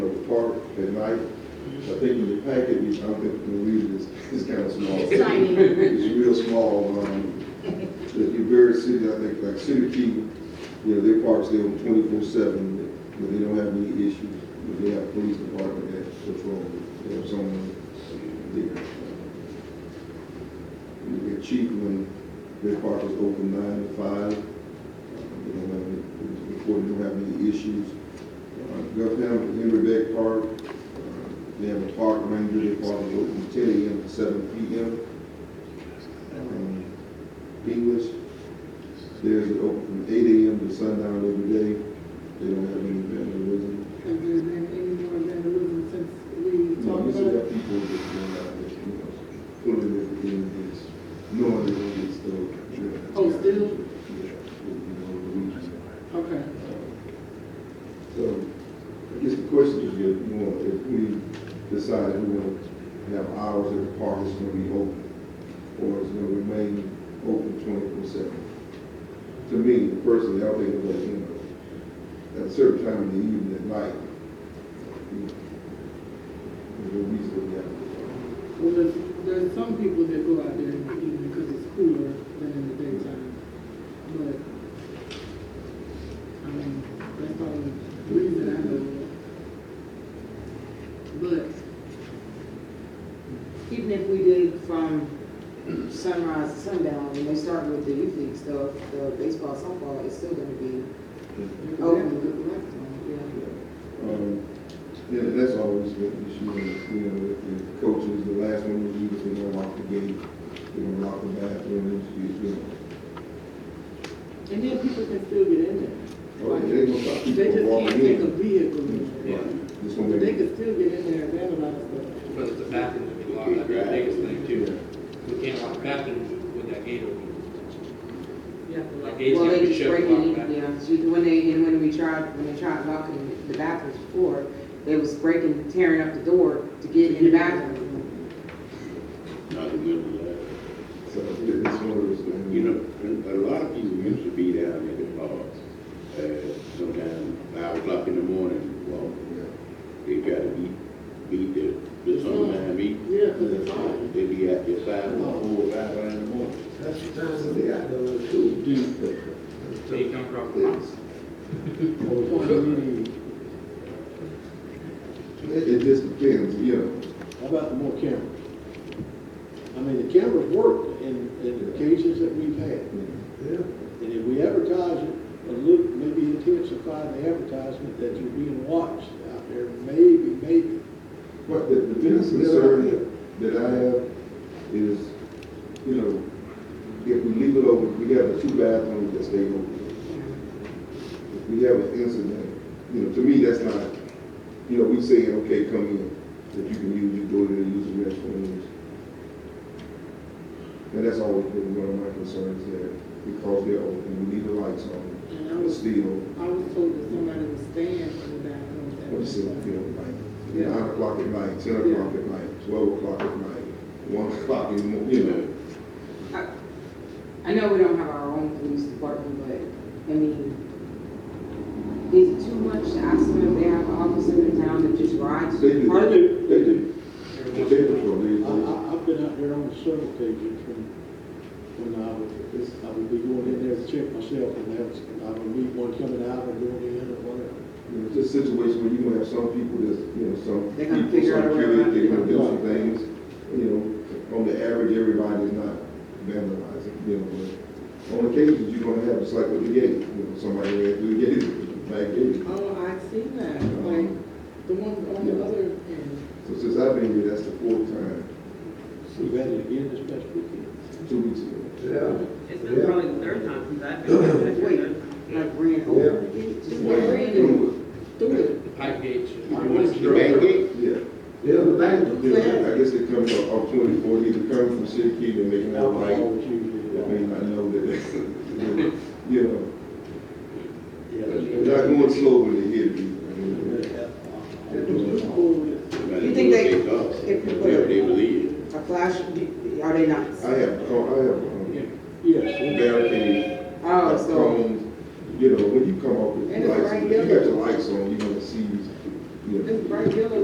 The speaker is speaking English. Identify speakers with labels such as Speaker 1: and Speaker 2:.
Speaker 1: park at night. I think in the packet, I don't think the lead is, is kind of small.
Speaker 2: It's tiny.
Speaker 1: It's real small, um, the the various city, I think, like City Key, you know, their parks, they're twenty-four seven, but they don't have any issues. But they have police department that patrol, they have someone there. You get cheap when their park is open nine to five. They don't have any, before they don't have any issues. Uh, Governor Henry Beck Park, uh, they have a park ranger, they park is open ten AM to seven PM. Um, English, theirs is open from eight AM to sundown every day. They don't have any vandalism.
Speaker 3: Have there been any more vandalism since we
Speaker 1: No,
Speaker 3: talked
Speaker 1: you
Speaker 3: about
Speaker 1: still
Speaker 3: it?
Speaker 1: got people that go out there, you know, pulling their communities, knowing they're gonna get stolen.
Speaker 3: Oh, still?
Speaker 1: Yeah, you know, the reason.
Speaker 3: Okay.
Speaker 1: So, I guess the question is, if, you know, if we decide we want to have hours at the park, it's gonna be open, or it's gonna remain open twenty-four seven. To me, personally, I think that, you know, at a certain time in the evening, at night, you know, there's a reason to have it.
Speaker 3: Well, there's, there's some people that go out there in the evening because it's cooler than in the daytime. But, I mean, that's the only reason I know. of.
Speaker 4: Even if we did from sunrise to sundown, when they start with the youth league stuff, the baseball, softball, it's still gonna be
Speaker 3: But.
Speaker 1: Oh.
Speaker 4: open.
Speaker 1: Um, yeah, that's always been an issue, you know, with the coaches, the last one was used, they don't lock the gate, they don't lock the bathrooms, you know.
Speaker 3: And then people can still get in
Speaker 1: Oh, yeah, they gonna stop
Speaker 3: there. They just
Speaker 1: people from
Speaker 3: can't
Speaker 1: walking
Speaker 3: take a
Speaker 1: in.
Speaker 3: vehicle in
Speaker 5: Yeah.
Speaker 3: there.
Speaker 1: This one,
Speaker 3: But they
Speaker 1: they-
Speaker 3: could still get in there and vandalize stuff.
Speaker 5: But it's the bathroom that we lock, that's the biggest thing too. We can't lock bathrooms with that gate open.
Speaker 3: Yeah.
Speaker 5: That gate's
Speaker 4: Well,
Speaker 5: gonna
Speaker 4: they
Speaker 5: be
Speaker 4: just
Speaker 5: shut
Speaker 4: break
Speaker 5: to
Speaker 4: it,
Speaker 5: lock
Speaker 4: in,
Speaker 5: bathrooms.
Speaker 4: yeah, so when they, and when we tried, when they tried locking the bathrooms before, they was breaking, tearing up the door to get in the bathroom.
Speaker 6: Not good
Speaker 1: so it's one uh, of those things.
Speaker 6: You know, a lot of people used to be down at the parks, uh, sometime five o'clock in the morning, well,
Speaker 1: Yeah.
Speaker 6: they try to beat, beat the, the summertime beat.
Speaker 4: Mm-hmm.
Speaker 3: Yeah, 'cause it's hot.
Speaker 6: They be out there sidewalk, four, or five in the morning.
Speaker 7: That's the times that they got those too.
Speaker 5: So you come across the house.
Speaker 1: It, it just depends, you know.
Speaker 7: How about the more cameras? I mean, the cameras work in, in the cases that we've had. And if we advertise it, a little, maybe intensify the advertisement that you're being watched out there, maybe, maybe.
Speaker 1: But the, the biggest concern that I have is, you know, if we leave it open, we have the two bathrooms that stay open. If we have an incident, you know, to me, that's not, you know, we saying, okay, come in, if you can use your door to use the restrooms. And that's always been one of my concerns there, because they're open, we leave the lights on,
Speaker 3: And I
Speaker 1: it's
Speaker 3: was,
Speaker 1: still,
Speaker 3: I was told that somebody was staying in the bathroom. at
Speaker 1: What's it,
Speaker 3: that
Speaker 1: you
Speaker 3: time.
Speaker 1: know, like, nine o'clock at night, ten o'clock at night, twelve o'clock at night, one o'clock in the morning, you know?
Speaker 4: I know we don't have our own police department, but, I mean, is it too much to ask them if they have an officer in town that just rides?
Speaker 1: They do,
Speaker 4: part
Speaker 1: they
Speaker 4: of it?
Speaker 1: do, they do. They
Speaker 5: Everyone's-
Speaker 1: patrol, they,
Speaker 7: I,
Speaker 1: they,
Speaker 7: I, I've been out there on several occasions when, when I would, I would be going in there to check myself and that's, and I would meet one coming out or going in or whatever.
Speaker 1: you know, just situation where you gonna have some people that's, you know, some
Speaker 4: They
Speaker 1: people, some
Speaker 4: gonna figure out a way
Speaker 1: kids,
Speaker 4: around
Speaker 1: they
Speaker 4: it.
Speaker 1: gonna do some things, you know, on the average, everybody's not vandalizing, you know, but on occasions, you're gonna have, it's like with the gate, you know, somebody ran through the gate, back gate.
Speaker 3: Oh, I seen that, like, the one on the other end.
Speaker 1: So since I've been here, that's the fourth time,
Speaker 7: We've had it again this past weekend.
Speaker 1: two weeks ago.
Speaker 8: It's been probably the third time since I've been here.
Speaker 4: Wait, like ran over the gate, just like ran in.
Speaker 1: Through
Speaker 3: Do
Speaker 5: The pipe gate should be
Speaker 6: The back gate,
Speaker 1: it, Yeah.
Speaker 7: Yeah, the bank.
Speaker 1: Yeah, I guess they come from opportunity for either come from City Key and make an outright, they may not know that, you know, they're not going slow when they hit people. I mean,
Speaker 4: You think they- if you put a-
Speaker 6: Whatever they believe.
Speaker 4: A flash, do- are they not?
Speaker 1: I have, co- I have, um,
Speaker 7: Yes.
Speaker 1: barricades, I
Speaker 4: Oh,
Speaker 1: have
Speaker 4: so,
Speaker 1: cones, you know, when you come up with
Speaker 3: And it's
Speaker 1: lights,
Speaker 3: right
Speaker 1: if you
Speaker 3: there.
Speaker 1: got your lights on, you're gonna see Yeah.
Speaker 4: This bright yellow